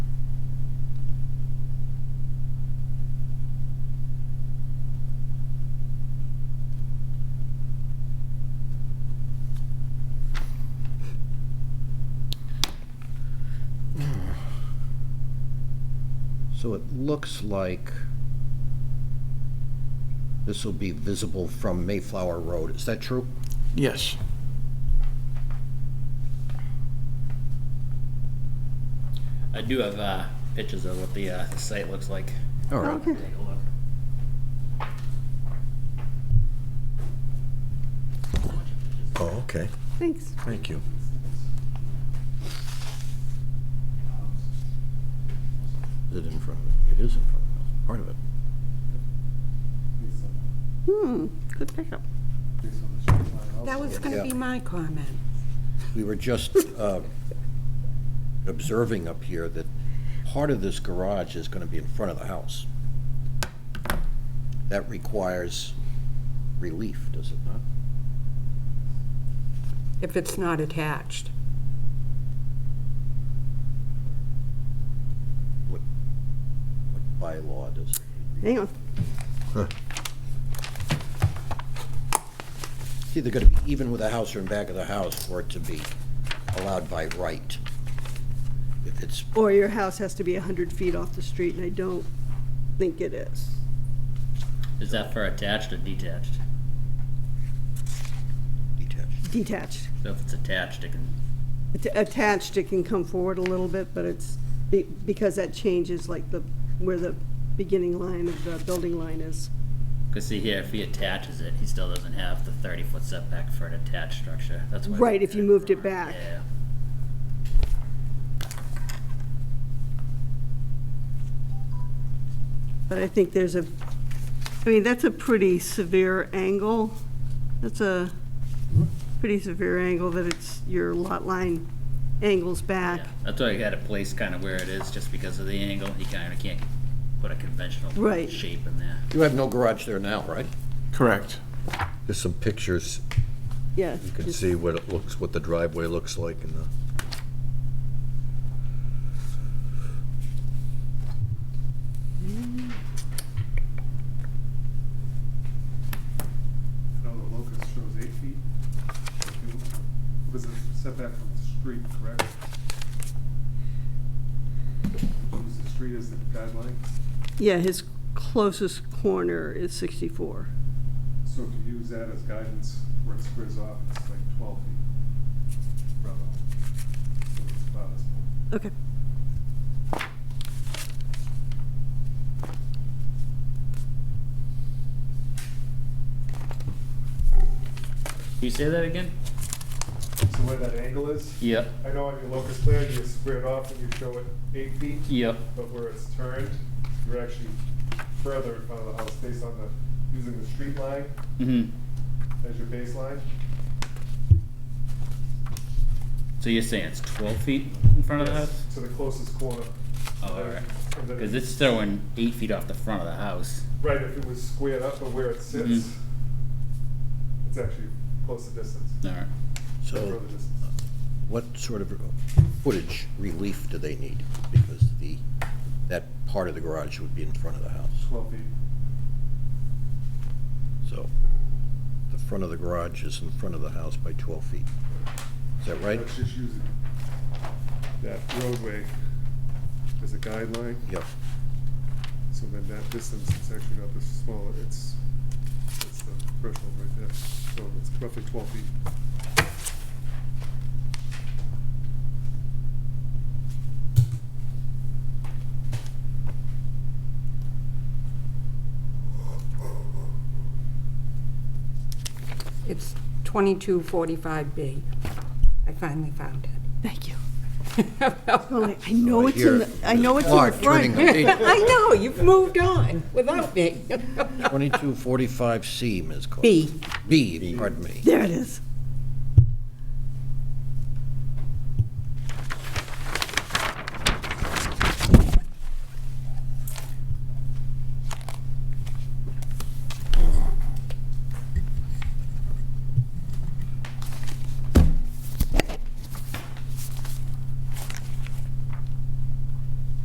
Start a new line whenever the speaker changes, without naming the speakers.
So it looks like this will be visible from Mayflower Road. Is that true?
Yes.
I do have uh, pictures of what the, uh, the site looks like.
All right.
Okay.
Take a look.
Oh, okay.
Thanks.
Thank you.
Is it in front of it? It is in front of it. Part of it.
Hmm, good pickup. That was
Yeah.
gonna be my comment.
We were just uh, observing up here that part of this garage is going to be in front of the house. That requires relief, does it not?
If it's not attached,
What what bylaw does it?
hang on.
It's either going to be even with the house or in back of the house for it to be allowed by right. If it's,
Or your house has to be 100 feet off the street, and I don't think it is.
Is that for attached or detached?
detached.
Detached.
So if it's attached, it can.
Att- Attached, it can come forward a little bit, but it's, be- because that changes like the, where the beginning line of the building line is.
Cause see here, if he attaches it, he still doesn't have the thirty foot setback for an attached structure. That's why. we
Right, if
did
you
it
moved it
for-
back.
Yeah.
But I think there's a, I mean, that's a pretty severe angle. That's a pretty severe angle that it's, your lot line angles back.
Yeah, that's why I had it placed kind of where it is, just because of the angle. He kind of can't put a conventional
Right.
shape in there.
You have no garage there now, right?
Correct.
There's some pictures.
Yeah.
You can
just-
see what it looks, what the driveway looks like and the,
No, the locus shows eight feet. If you- Because it's setback from the street, correct? Use the street as the guideline,
Yeah, his closest corner is 64.
so if you use that as guidance where it squares off, it's like twelve feet. Rough. So it's about as-
Okay.
Can you say that again?
So where that angle is?
Yep.
I know on your locus plan, you square it off and you show it eight feet.
Yep.
But where it's turned, you're actually further in front of the house based on the, using the street line
hmm
as your baseline.
So you're saying it's twelve feet in front of the house?
To the closest corner.
Oh, all right.
And then-
Cause it's throwing eight feet off the front of the house.
Right, if it was squared up or where it sits,
Mhm. Mm-hmm.
it's actually close to distance.
All right.
So uh,
Further distance.
what sort of footage relief do they need? Because the, that part of the garage would be in front of the house.
Twelve feet.
So the front of the garage is in front of the house by 12 feet. Is that right?
That's just using that roadway as a guideline,
Yep.
so then that distance, it's actually not this small, it's, it's the threshold right there, so it's roughly twelve feet.
It's 2245B. I finally found it.
Thank you. Well, I-
I
I know it's in, the. I know it's in the
Clark turning
front.
the page.
know, you've moved on without me.
2245C, Ms. Cole.
B.
B, pardon me.
There it is.